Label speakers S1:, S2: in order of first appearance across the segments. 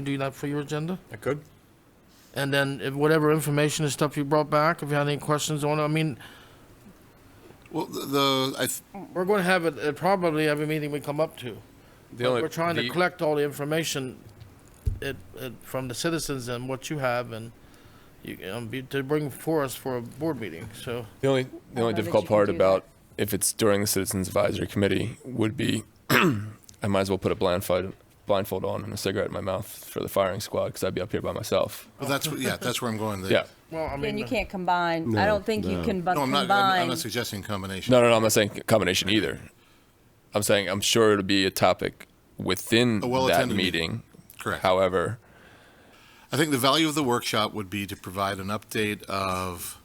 S1: You do that for your agenda?
S2: I could.
S1: And then if whatever information and stuff you brought back, if you had any questions on it, I mean,
S3: Well, the- the, I, th-
S1: we're going to have it at probably every meeting we come up to.
S2: The only-
S1: We're trying to
S2: the-
S1: collect all the information it, it, from the citizens and what you have and you, um, be- to bring for us for a board meeting, so.
S2: The only, the only
S4: that
S2: difficult
S4: you can
S2: part
S4: do
S2: about if it's during the Citizens Advisory Committee would be I might as well put a blindfold, blindfold on and a cigarette in my mouth for the firing squad because I'd be up here by myself.
S3: well, that's, what- yeah, that's where I'm going. The-
S2: Yeah.
S1: Well, I
S4: Then
S1: mean,
S4: you can't combine. I
S5: No,
S4: don't think you
S5: no.
S4: can bu-
S3: No, I'm not, I'm- I'm
S4: combine.
S3: not suggesting combination.
S2: No, no, no. I'm not saying combination either. I'm saying I'm sure it'll be a topic within
S3: A
S2: that
S3: well-attended
S2: meeting.
S3: meeting. Correct.
S2: However,
S3: I think the value of the workshop would be to provide an update of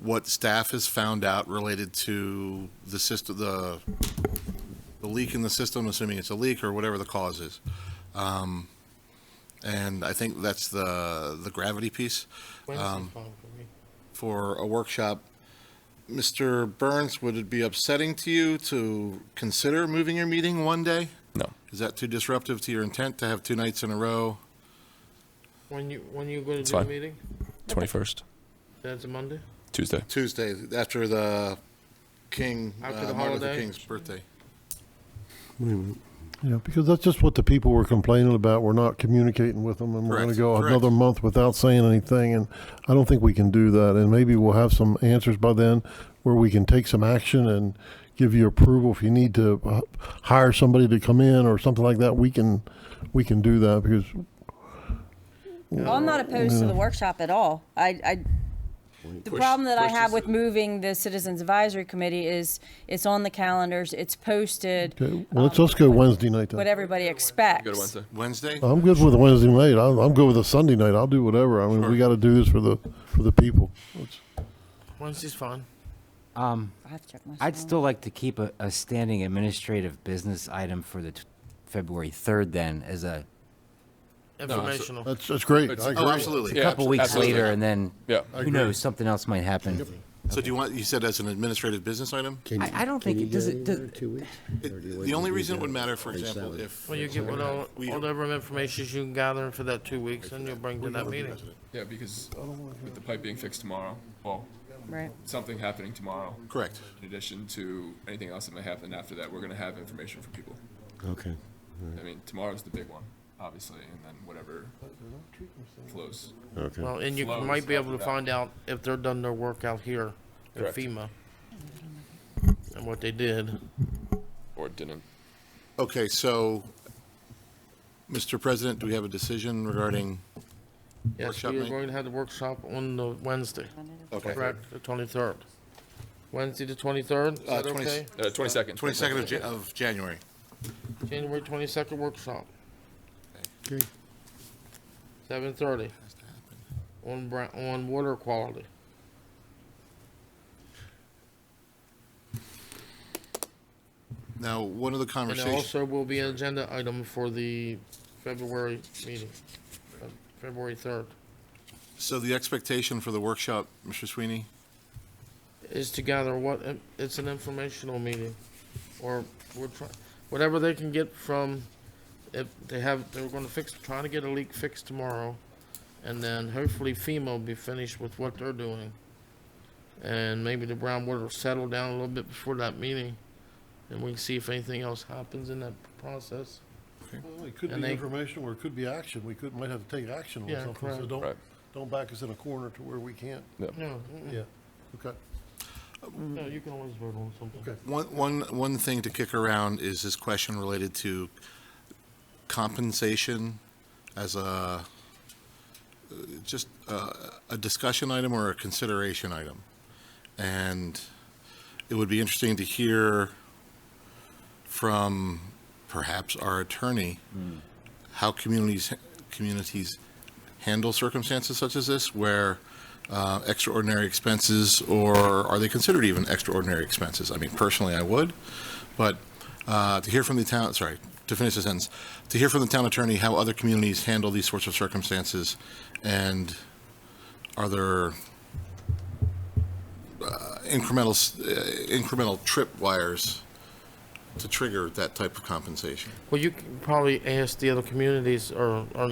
S3: what staff has found out related to the system, the, the leak in the system, assuming it's a leak or whatever the cause is. Um, And I think that's the, the gravity piece. Um,
S1: Wednesday's fine for me.
S3: for a workshop. Mr. Burns, would it be upsetting to you to consider moving your meeting one day?
S2: no.
S3: Is that too disruptive to your intent to have two nights in a row?
S1: When you, when you go to
S2: It's
S1: do the
S2: fine.
S1: meeting,
S2: 21st,
S1: that's a Monday?
S2: Tuesday.
S3: Tuesday, after the King,
S1: After
S3: uh,
S1: the
S3: Martin Luther
S1: holiday?
S3: King's birthday.
S5: Yeah, because that's just what the people were complaining about. We're not communicating with them, and we're going
S3: Correct,
S5: to go
S3: correct.
S5: another month without saying anything. And I don't think we can do that. And maybe we'll have some answers by then, where we can take some action and give you approval if you need to uh, hire somebody to come in or something like that. We can, we can do that because
S4: Well, I'm not opposed to the workshop at all. I, I, the problem that I
S3: push
S4: have
S3: this-
S4: with moving the Citizens Advisory Committee is it's on the calendars, it's posted,
S5: okay, well, let's let's go Wednesday night. Then.
S4: what everybody expects.
S2: Go to Wednesday.
S3: Wednesday?
S5: I'm good with a Wednesday night. I'm, I'm good with a Sunday night. I'll do whatever. I mean, we got to do this for the for the people. Let's-
S1: Wednesday's fine.
S4: I have to check my
S6: Um, I'd
S4: phone.
S6: still like to keep a, a standing administrative business item for the t- February 3rd then, as a
S1: Informational.
S5: that's that's great.
S2: It's-
S5: I
S3: Oh,
S5: agree.
S3: absolutely.
S2: Yeah.
S6: couple weeks
S2: Absolutely.
S6: later, and then,
S2: Yeah.
S5: I
S6: who
S5: agree.
S6: knows, something else might happen.
S3: So do you want, you said as an administrative business item?
S6: I, I don't think it, does it, does,
S3: It- The only reason it would matter, for example, if.
S1: Well, you get what all,
S3: We-
S1: whatever information you can gather for that two weeks, and you'll bring to that meeting.
S2: Yeah, because with the pipe being fixed tomorrow, well,
S4: Right.
S2: something happening tomorrow.
S3: Correct.
S2: In addition to anything else that may happen after that, we're going to have information for people.
S5: Okay.
S2: I mean, tomorrow's the big one, obviously, and then whatever flows.
S5: Okay.
S1: Well, and you
S2: Flows
S1: might be able to
S2: after that.
S1: find out if they're done their work out here at
S2: Correct.
S1: FEMA and what they did.
S2: Or didn't.
S3: Okay, so, Mr. President, do we have a decision regarding?
S1: Yes,
S3: Workshop
S1: we are
S3: night?
S1: going to have the workshop on the Wednesday,
S3: Okay.
S1: correct, the twenty-third. Wednesday, the twenty-third, is
S3: Uh,
S1: that
S3: 20
S1: okay?
S2: Uh, 22nd.
S3: 22nd of Ja- of January.
S1: January twenty-second workshop, seven-thirty, on bra, on water quality.
S3: Now, one of the
S1: And
S3: conversations.
S1: there also will be an agenda item for the February meeting, uh, February third,
S3: So the expectation for the workshop, Mr. Sweeney,
S1: is to gather what, um, it's an informational meeting, or we're trying, whatever they can get from, if they have, they were gonna fix, trying to get a leak fixed tomorrow, and then hopefully FEMA will be finished with what they're doing. And maybe the groundwater will settle down a little bit before that meeting, and we can see if anything else happens in that process.
S5: Well, it could
S1: And
S5: be
S1: they-
S5: information or it could be action. We could, might have to take action on
S1: Yeah,
S5: something, so
S1: correct.
S5: don't,
S2: Right.
S5: don't back us in a corner to where we can't,
S1: No, mm,
S5: yeah, okay.
S1: no, you can always vote on something.
S5: Okay.
S3: one, one, one thing to kick around is this question related to compensation as a, just a, a discussion item or a consideration item. And it would be interesting to hear from perhaps our attorney, how communities, communities handle circumstances such as this, where uh, extraordinary expenses, or are they considered even extraordinary expenses? I mean, personally, I would, but uh, to hear from the town, sorry, to finish the sentence, to hear from the town attorney how other communities handle these sorts of circumstances, and are there uh, incremental, s- uh, incremental tripwires to trigger that type of compensation.
S1: Well, you can probably ask the other communities or, or